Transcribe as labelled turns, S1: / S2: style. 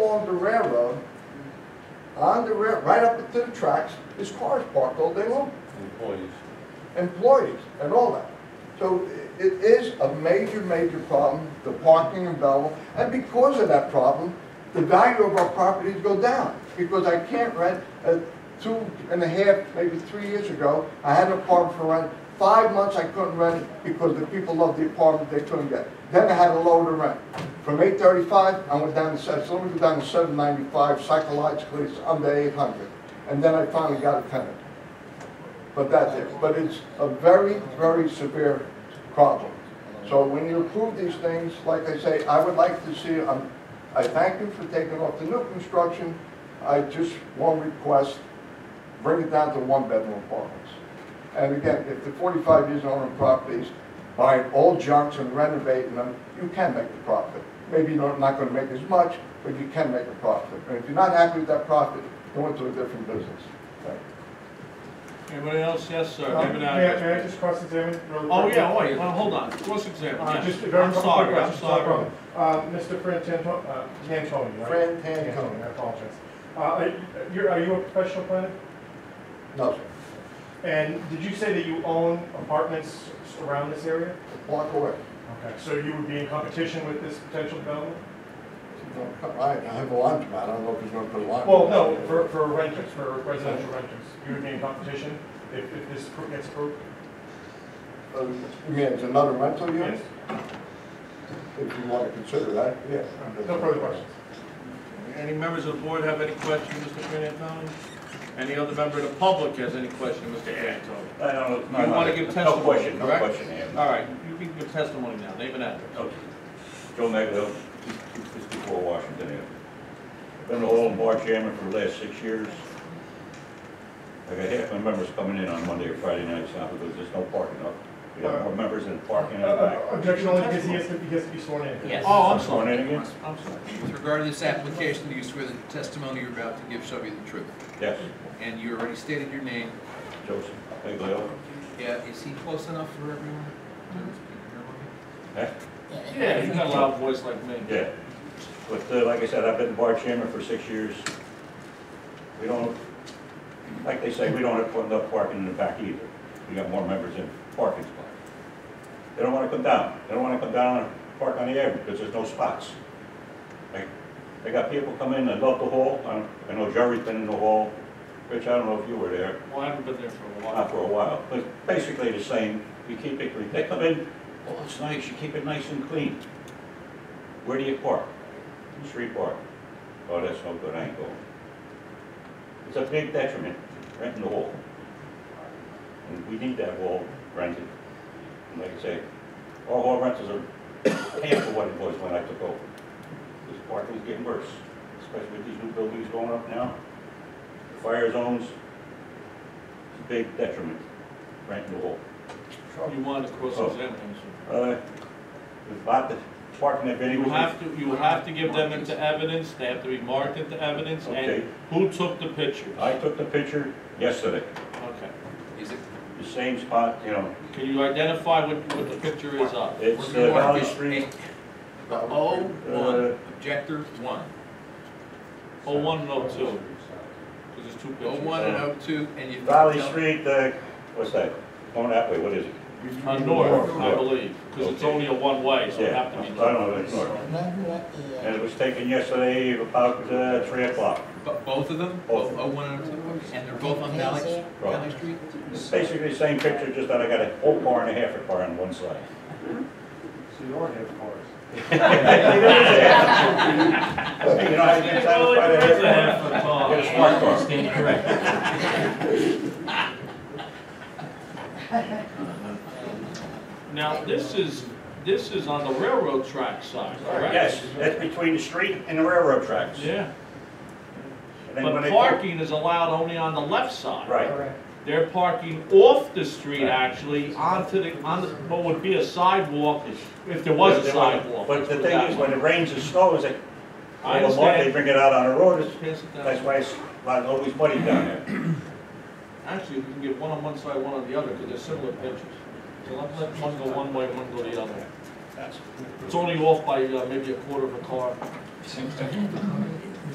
S1: on the rail, right up to the tracks, there's cars parked all day long,
S2: employees.
S1: employees and all that. So i- it is a major, major problem, the parking in Belleville, and because of that problem, the value of our properties go down, because I can't rent, uh, two and a half, maybe three years ago, I had an apartment for rent, five months I couldn't rent it because the people loved the apartment, they couldn't get. it. Then I had to lower the rent, from eight thirty-five, I went down to, seven- so let me go down to seven ninety-five, psychologically, it's under eight hundred, and then I finally got a tenant. But that's it, but it's a very, very severe problem. So when you approve these things, like I say, I would like to see, um, I thank you for taking off the new construction. I just, one request, bring it down to one-bedroom apartments. And again, if the forty-five years owning properties, buying old junks and renovating them, you can make a profit. Maybe you're not gonna make as much, but you can make a profit. And if you're not happy with that profit, go into a different business. Thank you.
S3: Anybody else? Yes, sir.
S4: Um,
S3: Name and
S4: May I,
S3: address,
S4: may I
S3: please.
S4: just cross-examine? real
S3: Oh,
S4: quick?
S3: yeah, wait, well, hold on, cross examine,
S4: Uh,
S3: yes.
S4: Just a very
S3: I'm
S4: couple
S3: sorry,
S4: quick
S3: I'm
S4: questions, no
S3: sorry.
S4: problem. Uh, Mr. Fran Tanto- uh, Tantoni, right?
S1: Fran Tantoni.
S4: I apologize. Uh, are you, are you a professional planner?
S1: No, sir.
S4: And did you say that you own apartments around this area?
S1: Walk away.
S4: Okay, so you would be in competition with this potential development?
S1: Don't come- I I have a laundromat, I don't know if he's gonna put a laundromat.
S4: Well, no, for, for renters, for residential renters, you would be in competition if, if this pro- gets approved?
S1: Uh, You mean it's another rental unit? If you wanna consider that, yes.
S4: No further questions.
S3: Any members of the board have any questions, Mr. Frantantoni? Any other member of the public has any question, Mr. Frantantoni?
S5: I don't know.
S3: You wanna give
S5: No
S3: testimony,
S5: question, no
S3: correct?
S5: question, yeah.
S3: All right, you can give testimony now, name and address.
S5: Okay. Joe Maglio, 254 Washington Avenue. Been an oil and bar chairman for the last six years. I got half my members coming in on Monday or Friday nights now because there's no parking up. We have more members in the parking
S4: Uh,
S5: out
S4: uh,
S5: back.
S4: Objection only because he has to, he has to be sworn in.
S6: Yes.
S3: Oh, I'm
S5: Sworn
S3: sorry,
S5: in again?
S3: I'm sorry.
S6: With regard to this application, do you swear that the testimony you're about to give shall be the truth?
S5: Yes,
S6: And you already stated your name.
S5: Joseph Maglio.
S6: Yeah, is he close enough for everyone? to hear him?
S5: Huh?
S3: Yeah, you got a loud voice like me.
S5: Yeah. But uh, like I said, I've been the bar chairman for six years. We don't, like they say, we don't have enough parking in the back either. We got more members in parking spots. They don't want to come down. They don't want to come down and park on the avenue because there's no spots. Like, They got people come in that love the hall. I don't- I know Jerry's been in the hall. Rich, I don't know if you were there,
S3: Well, I haven't been there for a
S5: not
S3: while.
S5: for a while. But basically the same, you keep it, clean. they come in, oh, it's nice, you keep it nice and clean. Where do you park? Street park. Oh, that's no good, I ain't going. It's a big detriment, renting the wall. And we need that wall rented. And like I say, our wall rentals are half of what it was when I took over. This park was getting worse, especially with these new buildings going up now. Fire zones, it's a big detriment, renting the wall.
S3: You want to cross examine, him,
S5: Uh, the lot that parking that
S3: sir.
S5: venue.
S3: You have to, you have to give them into evidence, they have to be marked into evidence, and
S5: Okay.
S3: who took the pictures?
S5: I took the picture yesterday,
S3: Okay.
S6: Is it,
S5: the same spot, you know,
S3: Can you identify what, what the picture is of?
S5: it's
S6: We're
S5: uh,
S6: gonna
S5: Valley
S6: get
S5: Street.
S6: eight. the O one,
S5: Uh,
S6: objector one.
S3: Oh, one and oh two, because there's two
S6: O
S3: pictures.
S6: Oh, one and O two, and you.
S5: Valley Street, uh, what's that, going that way, what is it?
S3: On Uh, north, I believe, because it's
S5: Okay.
S3: only a one-way, so it
S5: Yeah,
S3: have to be.
S5: I don't know, it's north. And it was taken yesterday about uh, three o'clock.
S6: But both of them, both O one and O two, and they're both on Valley, Valley Street?
S5: It's basically the same picture, just that I got a whole car and a half a car on one side.
S4: So you already have cars.
S5: Hey, You know, I get satisfied
S3: It's a
S5: every
S3: half a car.
S5: Get a smart car.
S3: Now, this is, this is on the railroad track side, correct?
S5: Yes, that's between the street and the railroad tracks.
S3: Yeah,
S5: And then when
S3: but
S5: they-
S3: parking is allowed only on the left side.
S5: Right.
S3: They're parking off the street actually, onto the, on the, what would be a sidewalk, if there was a
S5: They want-
S3: sidewalk.
S5: But the
S3: Let's put
S5: thing
S3: that
S5: is,
S3: way.
S5: when it rains and snows, they,
S3: I
S5: they
S3: understand.
S5: bring it out on the road, it's-
S3: Pass it down.
S5: that's why it's, why it's always muddy down there.
S3: Actually, we can get one on one side, one on the other, because they're similar pitches. So let, let one go one way, one go the other. It's only off by uh, maybe a quarter of a car.